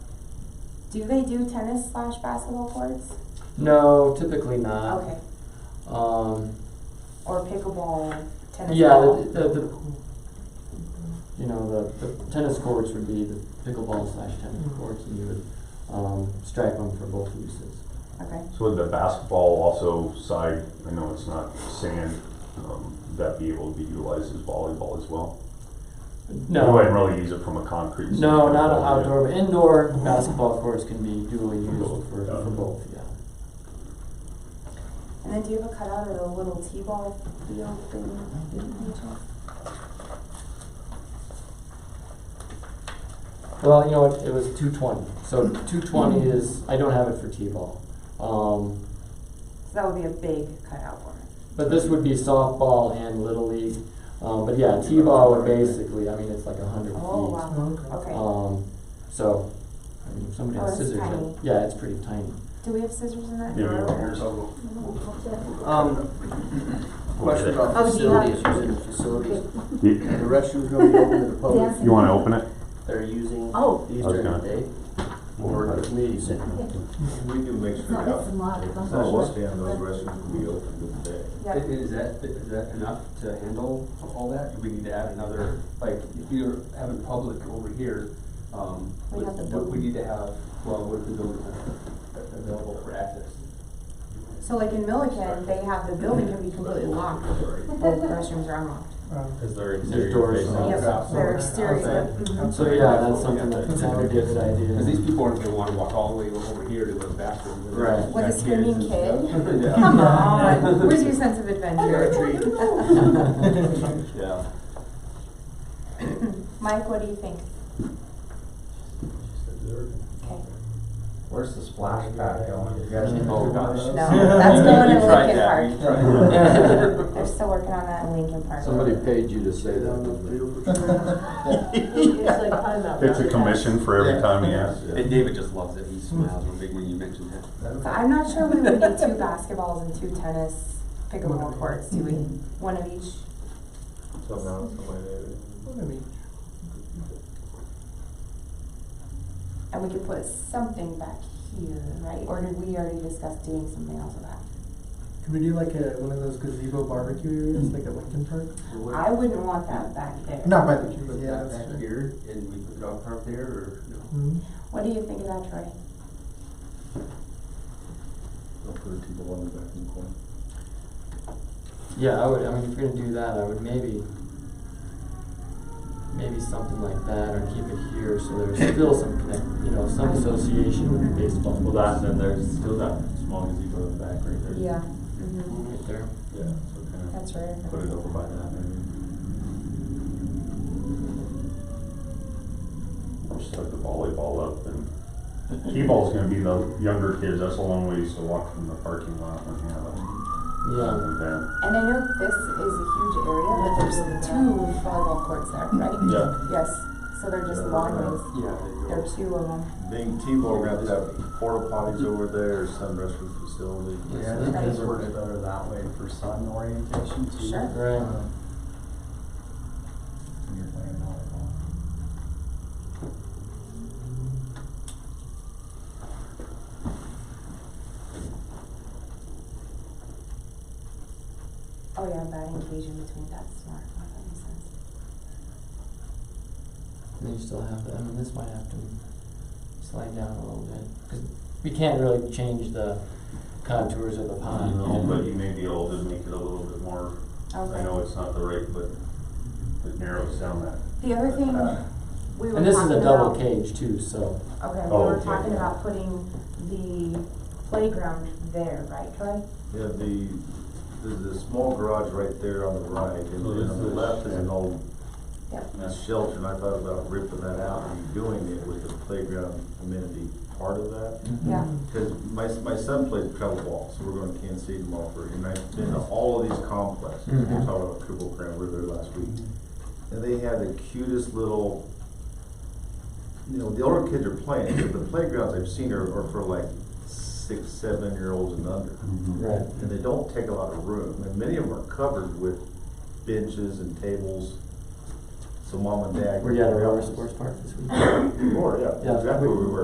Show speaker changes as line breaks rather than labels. Do they do tennis slash basketball courts?
No, typically
Uh,
not.
Okay,
Um,
or pickleball, tennis
yeah,
ball?
the, the, the, you know, the, the tennis courts would be the pickleball slash tennis
Mm-hmm.
courts, and you would um, stripe them for both uses.
Okay,
So would the basketball also side, I know it's not sand, um, would that be able to be utilized as volleyball as well? You
No,
wouldn't really use it from a concrete.
no,
standpoint,
not
would you?
outdoor, but indoor basketball courts can be dually used for, for both, yeah.
and then do you have a cutout of the little t-ball field thing?
Well, you know what? It was Mm-hmm. 220. So 220 is, I don't have it for T ball. Um,
So that would be a big cutout for it.
but this would be softball and Little League. Um, but yeah, T ball would basically, I mean, it's like 100
Oh,
feet.
wow,
Uh,
okay.
Um, so, I mean, if somebody
Oh,
has
it's
scissors, that-
tiny.
yeah, it's pretty tiny.
Do we have scissors in that?
Yeah, we don't.
drawer?
Um, question about
Oh, do you have-
facilities, using the facilities,
You,
the restroom's gonna be open to the public,
Oh, you wanna open it?
they're using
Oh,
these
I was
during the
gonna-
day, or the community center.
We do make sure
no, that's a
that
lot of
Oh,
concession
what?
stand, those restrooms will be open during the day.
Yeah.
Is that, is that enough to handle all that? Do we need to add another, like, if you're having public over here, um,
We
what,
have the
what we
building.
need to have, well, what if the building has available for access?
So like in Milliken, they have, the building can be completely locked, both restrooms are unlocked.
Is there
There's
interior
doors.
facing?
Yes, they're exterior. Mhm.
So yeah, that's something that, that would be a good
Cause these
idea.
people aren't gonna wanna walk all the way over here to the bathroom. and
Right.
they've
With a
got kids
screaming
and stuff.
kid?
Yeah.
Come on, where's your sense of
Fair
adventure?
treat.
Yeah.
Mike, what do you think? Okay.
Where's the splash pad going? You guys
Mm.
know about
No.
No,
those?
that's
Oh, You-
going
you
to
tried
Lincoln
that,
Park.
you tried that.
They're still working on that in Lincoln Park.
Somebody paid you to say that, didn't they?
It's a commission for every time he asks.
And David just loves it. He smiles when big when you mention that.
So I'm not sure we would need two basketballs and two tennis pickleball courts, do we? One of each?
So now it's somebody that-
And we could put something back here, right? Or did we already discuss doing something else with that?
Could we do like a, one of those gazebo barbecue areas, like at Lincoln Park?
I wouldn't want that back there.
Not by the queue, but
Put
yeah,
that
that's true.
back here and we put the dog park there or no?
Mhm.
What do you think of that, Troy?
They'll put a T-ball in the back in the corner.
Yeah, I would, I mean, if you're gonna do that, I would maybe, maybe something like that, or keep it here, so there's still some connect, you know, some association with the baseball.
Well, that, then there's still that small gazebo in the back right there.
Mm-hmm.
Right there.
Yeah, so kind
That's right.
of put it over by that maybe.
Just put the volleyball up and T-ball's gonna be the younger kids, that's a long ways to walk from the parking lot when you have a
Yeah.
event.
And I know this is a huge area, but there's two volleyball courts there, right?
Yeah.
Yes, so they're just long ways.
Yeah, there you
There
go.
are two of them.
Being T-ball, we're gonna have to have porta potties over there, some restroom facility.
Yeah,
I think it's
worked
better that way for sun orientation
too. Sure.
Right.
You're playing volleyball.
Oh yeah, batting cage in between, that's smart, Wow, that makes sense.
And then you still have to, I mean, this might have to slide down a little bit, 'cause we can't really change the contours of the pond.
No, but you may be able to make it a little bit more, I
Okay.
know it's not the right, but it narrows down that.
The other thing
Uh,
we were talking about.
And this is a double cage too, so,
Okay, we
Oh,
were
okay,
talking
yeah.
about putting the playground there, right, Troy?
Yeah, the, there's a small garage right there on the right, and
Oh,
then on the
this is-
left is an old
Yep.
shelter, and I thought about ripping that out and doing it with the playground amenity part of that.
Yeah.
Because my, my son plays pickleball, so we're going to Kansas City tomorrow for, and I've been to all of these complexes. We
Mhm.
Mm-hmm.
talked about Cripple Grand, we were there last week. And they had the cutest little, you know, the older kids are playing, but the playgrounds I've seen are, are for like six, seven-year-olds and under.
right.
And they don't take a lot of room, and many of them are covered with benches and tables. So mom and dad.
Were you at a roller sports park this weekend?
Or, yeah,
Yeah.
exactly where we were.